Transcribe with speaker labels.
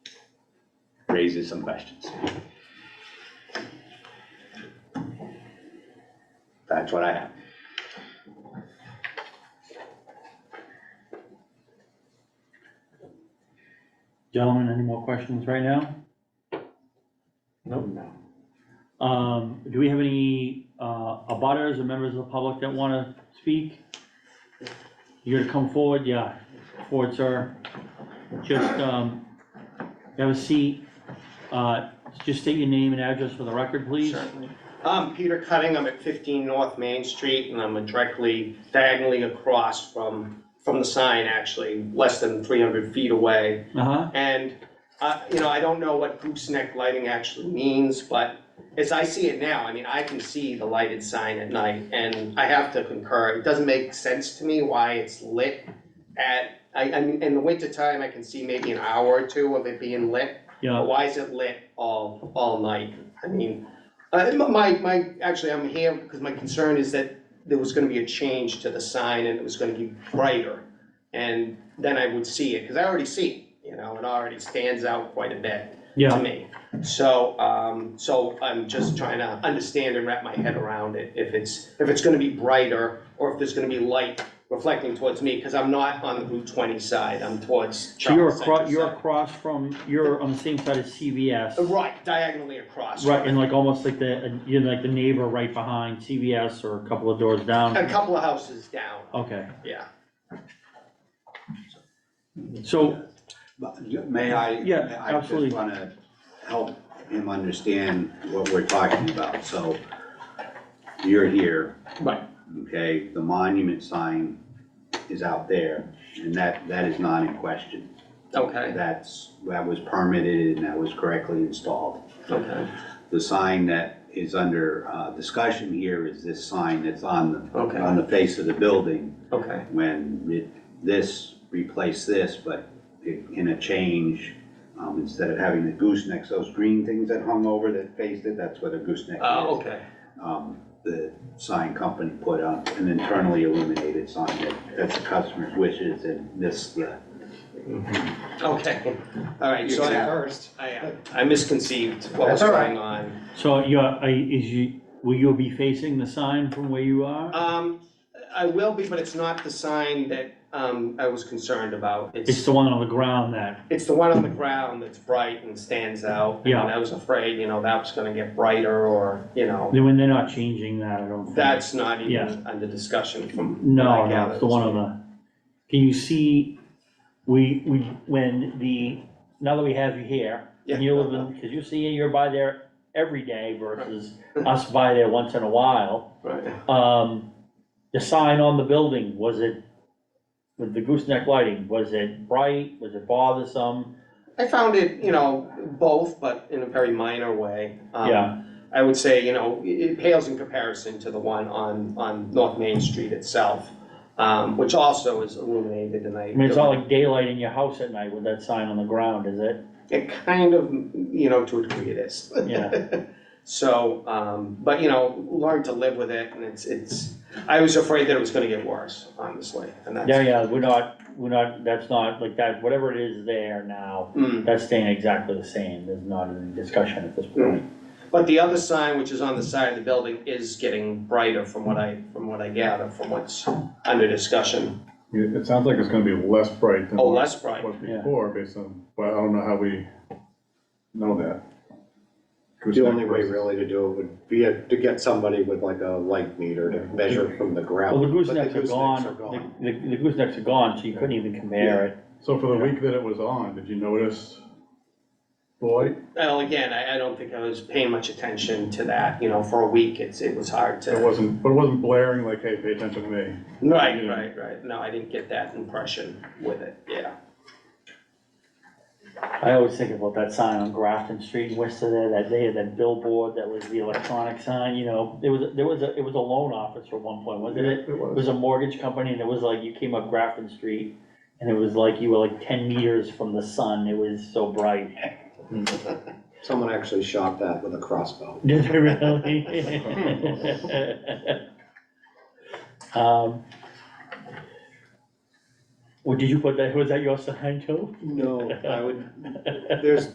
Speaker 1: raises some questions. That's what I have.
Speaker 2: Gentlemen, any more questions right now?
Speaker 3: Nope.
Speaker 2: Um, do we have any, uh, abutters or members of the public that wanna speak? You're gonna come forward, yeah, forward, sir. Just, um, have a seat, uh, just state your name and address for the record, please.
Speaker 4: Certainly. I'm Peter Cutting, I'm at 15 North Main Street, and I'm directly diagonally across from, from the sign, actually, less than 300 feet away.
Speaker 2: Uh-huh,
Speaker 4: And, uh, you know, I don't know what gooseneck lighting actually means, but as I see it now, I mean, I can see the lighted sign at night, and I have to concur, it doesn't make sense to me why it's lit at, I, I mean, in the wintertime, I can see maybe an hour or two of it being lit,
Speaker 2: yeah,
Speaker 4: but Uh, why is it lit all, all night? I mean, uh, my, my, actually, I'm here because my concern is that there was gonna be a change to the sign and it was gonna be brighter. And then I would see it, because I already see it, you know, it already stands out quite a bit to
Speaker 2: yeah,
Speaker 4: me. So, um, so I'm just trying to understand and wrap my head around it, if it's, if it's gonna be brighter or if there's gonna be light reflecting towards me, because I'm not on the Route twenty side, I'm towards
Speaker 2: so you're
Speaker 4: Charles Center
Speaker 2: across, you're
Speaker 4: side.
Speaker 2: across from, you're on the same side as CVS.
Speaker 4: Right, diagonally across.
Speaker 2: Right, and like almost like the, you're like the neighbor right behind CVS or a couple of doors down.
Speaker 4: A couple of houses down,
Speaker 2: Okay,
Speaker 4: yeah.
Speaker 2: so,
Speaker 3: But
Speaker 5: May I?
Speaker 2: Yeah,
Speaker 5: may I
Speaker 2: absolutely.
Speaker 5: just wanna help him understand what we're talking about, so you're here.
Speaker 4: Right.
Speaker 5: Okay, the monument sign is out there, and that, that is not in question.
Speaker 4: Okay,
Speaker 5: That's, that was permitted and that was correctly installed.
Speaker 4: okay,
Speaker 5: The sign that is under, uh, discussion here is this sign that's on the,
Speaker 4: Okay.
Speaker 5: on the face of the building.
Speaker 4: okay,
Speaker 5: when it, this replaced this, but it- in a change, um, instead of having the goosenecks, those green things that hung over that faced it, that's what a gooseneck
Speaker 4: uh,
Speaker 5: is.
Speaker 4: okay,
Speaker 5: Um, the sign company put up an internally illuminated sign that, that's the customer's wishes and this, the
Speaker 4: okay, all right, so I,
Speaker 3: first.
Speaker 4: I, uh, I misconceived what was
Speaker 5: That's all right.
Speaker 4: going on.
Speaker 2: so you're, are- is you, will you be facing the sign from where you are?
Speaker 4: Um, I will be, but it's not the sign that, um, I was concerned about,
Speaker 2: It's
Speaker 4: it's,
Speaker 2: the one on the ground that,
Speaker 4: it's the one on the ground that's bright and stands out.
Speaker 2: Yeah.
Speaker 4: And I was afraid, you know, that was gonna get brighter or, you know,
Speaker 2: when they're not changing that, I don't think.
Speaker 4: that's not
Speaker 2: Yeah.
Speaker 4: even under discussion from what
Speaker 2: No,
Speaker 4: I
Speaker 2: no, it's
Speaker 4: gathered.
Speaker 2: the one on the, can you see, we, we, when the, now that we have you here, and you're living, cause you see you're by there every day versus us by there once in a while.
Speaker 4: Right,
Speaker 2: Um, the sign on the building, was it, with the gooseneck lighting, was it bright, was it bothersome?
Speaker 4: I found it, you know, both, but in a very minor way. Um,
Speaker 2: Yeah.
Speaker 4: I would say, you know, it it pales in comparison to the one on, on North Main Street itself, um, which also is illuminated and I.
Speaker 2: I mean, it's not like daylight in your house at night with that sign on the ground, is it?
Speaker 4: It kind of, you know, to a degree it is.
Speaker 2: Yeah,
Speaker 4: So, um, but you know, learn to live with it and it's, it's, I was afraid that it was gonna get worse, honestly, and that's.
Speaker 2: yeah, yeah, we're not, we're not, that's not, like that, whatever it is there now,
Speaker 4: Mm.
Speaker 2: that's staying exactly the same, there's not any discussion at this point.
Speaker 4: But the other sign, which is on the side of the building, is getting brighter from what I, from what I gather, from what's under discussion.
Speaker 6: It it sounds like it's gonna be less bright than
Speaker 4: Oh,
Speaker 6: what
Speaker 4: less bright.
Speaker 6: was
Speaker 2: Yeah.
Speaker 6: before, based on, but I don't know how we know that.
Speaker 3: The only way really to do it would be to get somebody with like a light meter to measure from the ground.
Speaker 2: Well, the
Speaker 3: But
Speaker 2: goosenecks are gone, the, the the goosenecks are gone, so you couldn't even compare it.
Speaker 6: So for the week that it was on, did you notice the light?
Speaker 4: Well, again, I, I don't think I was paying much attention to that, you know, for a week, it's, it was hard
Speaker 6: It
Speaker 4: to.
Speaker 6: wasn't, but it wasn't blaring like, hey, pay attention to me.
Speaker 4: Right, right, right, no, I didn't get that impression with it, yeah.
Speaker 2: I always think about that sign on Grafton Street in Worcester there, that they had that billboard that was the electronic sign, you know, there was, there was, a it was a loan office at one point, wasn't it? It was
Speaker 6: was.
Speaker 2: a mortgage company and it was like, you came up Grafton Street and it was like, you were like ten meters from the sun, it was so bright.
Speaker 3: Someone actually shot that with a crossbow.
Speaker 2: Did they really? Um, Well, did you put that, was that your sign too?
Speaker 3: No, I would, there's